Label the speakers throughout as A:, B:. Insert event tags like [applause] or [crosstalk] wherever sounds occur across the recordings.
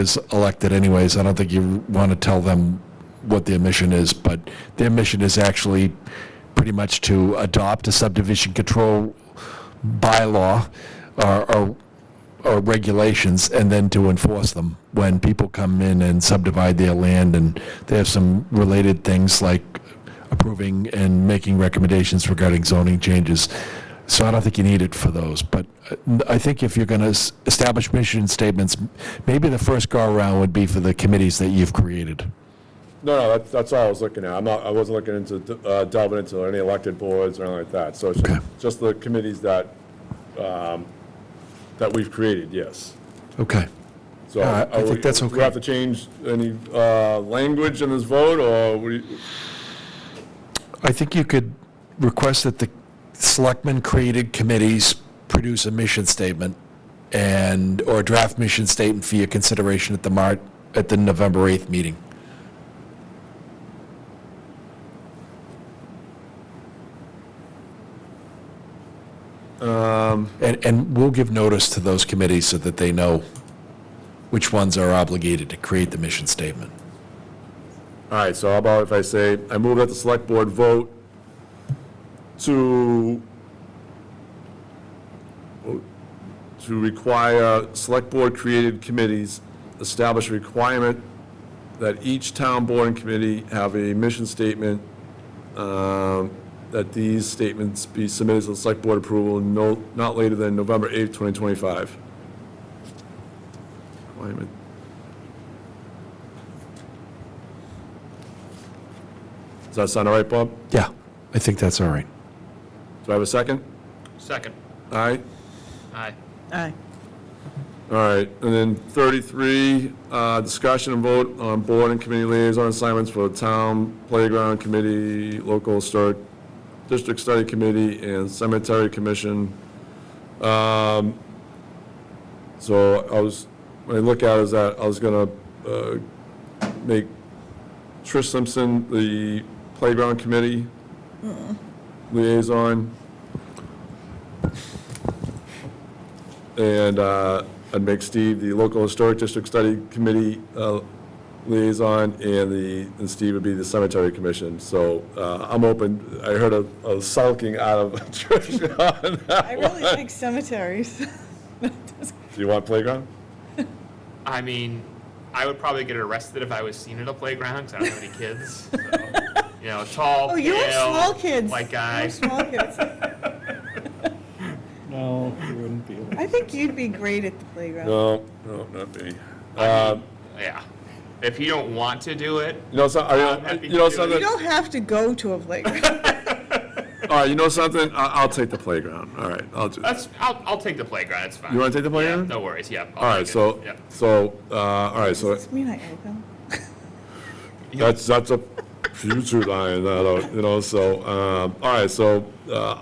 A: is elected anyways. I don't think you want to tell them what their mission is, but their mission is actually pretty much to adopt a subdivision control bylaw or, or, or regulations and then to enforce them when people come in and subdivide their land. And they have some related things like approving and making recommendations regarding zoning changes. So I don't think you need it for those, but uh, I think if you're going to establish mission statements, maybe the first go-around would be for the committees that you've created.
B: No, no, that's, that's all I was looking at. I'm not, I wasn't looking into, uh, delving into any elected boards or anything like that. So it's
A: Okay.
B: just, just the committees that, um, that we've created, yes.
A: Okay.
B: So.
A: All right, I
B: are
A: think
B: we-
A: that's
B: Do
A: okay.
B: we have to change any, uh, language in this vote or we,
A: I think you could request that the selectmen-created committees produce a mission statement and, or a draft mission statement for your consideration at the Mar, at the November 8th meeting. And, and we'll give notice to those committees so that they know which ones are obligated to create the mission statement.
B: all right, so how about if I say, I move that the select board vote to, to require select board created committees establish a requirement that each town board and committee have a mission statement, um, that these statements be submitted to the select board approval no, not later than November 8th, 2025. Requirement. Does that sound all right, Bob?
A: Yeah, I think that's all right.
B: Do I have a second?
C: Second.
B: All right?
C: Aye.
D: Aye.
B: All right, and then 33, uh, discussion and vote on board and committee liaison assignments for the town playground committee, local historic district study committee, and cemetery commission. Um, So I was, when I look at it, is that I was gonna uh, make Trish Simpson the playground committee liaison. And uh, I'd make Steve the local historic district study committee uh, liaison, and the, and Steve would be the cemetery commission. So uh, I'm open, I heard a a sulking out of [laughs] Trish on
D: I
B: that
D: really
B: one.
D: like cemeteries. [laughs]
B: Do you want playground?
C: I mean, I would probably get arrested if I was seen at a playground 'cause I don't have any kids. So, you know, tall,
D: Oh, you have
C: pale,
D: small kids.
C: white
D: You
C: guy.
D: have small kids.
E: [laughs] No, you wouldn't be able to.
D: I think you'd be great at the playground.
B: No, no, not me.
C: I
B: Um,
C: mean, yeah. If you don't want to do it,
B: You know, so-
C: I'm
B: I-
C: happy
B: you know
C: to do it.
D: You
B: something, all
D: don't have to go to a playground.
B: right, you know something? I- I'll take the playground, all right, I'll do that.
C: that's I'll, I'll take the playground. It's fine.
B: You want to take the
C: Yeah,
B: playground?
C: no worries. Yeah. I'll
B: All right,
C: take it.
B: so,
C: Yeah.
B: so, uh, all right, so
D: Does this mean I owe them?
B: that's, that's a future line, I don't- you know, so, um, all right, so uh,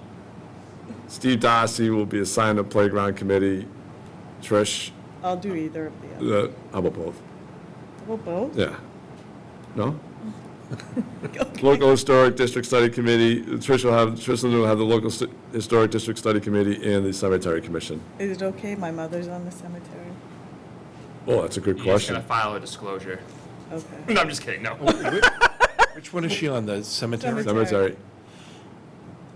B: Steve Darcy will be assigned to playground committee. Trish,
D: I'll do either of the other.
B: uh, how about both?
D: Well, [laughs] both?
B: Yeah. No? Local Historic District Study Committee, Trish will have, Trish will have the Local St- Historic District Study Committee and the Cemetery Commission.
D: Is it okay? My mother's on the cemetery.
B: Oh, that's a good
C: You're just gonna
B: question.
C: file a disclosure. [laughs]
D: Okay.
C: No, I'm just kidding. No.
A: Which one is she on, the cemetery?
B: Cemetery,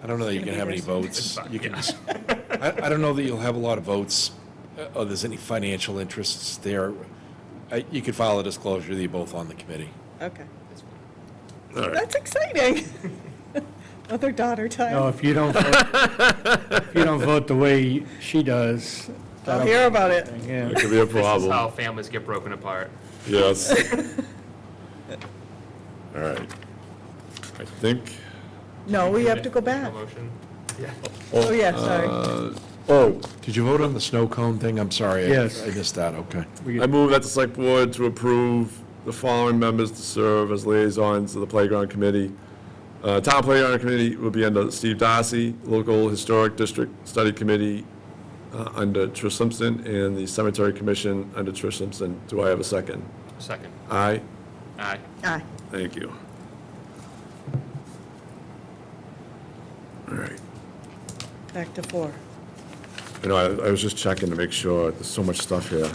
A: I don't know that you can have any votes. You can,
C: Yeah.
A: I, I don't know that you'll have a lot of votes, uh, or there's any financial interests there. I- You could file a disclosure that you're both on the committee.
D: Okay.
B: all right. [laughs]
D: That's exciting. Mother daughter
E: No,
D: time.
E: if you don't, vote if you don't vote the way she does,
D: I'll hear about it.
E: yeah.
B: That could be a
C: [laughs] This is
B: problem.
C: how families get broken apart. [laughs]
B: Yes. All right. I think,
D: No, we have to go back.
C: No motion. Yeah.
D: Oh, yeah, sorry.
B: uh, oh,
A: Did you vote on the snow cone thing? I'm sorry. I-
E: Yes.
A: I missed that, okay.
E: We
B: I
E: could-
B: move that the select board to approve the following members to serve as liaisons to the playground committee. Uh, Town Playground Committee will be under Steve Darcy, Local Historic District Study Committee uh, under Trish Simpson, and the Cemetery Commission under Trish Simpson. Do I have a second?
C: Second.
B: Aye?
C: Aye.
D: Aye.
B: Thank you. All right.
D: Back to four.
B: You know, I I was just checking to make sure, there's so much stuff here.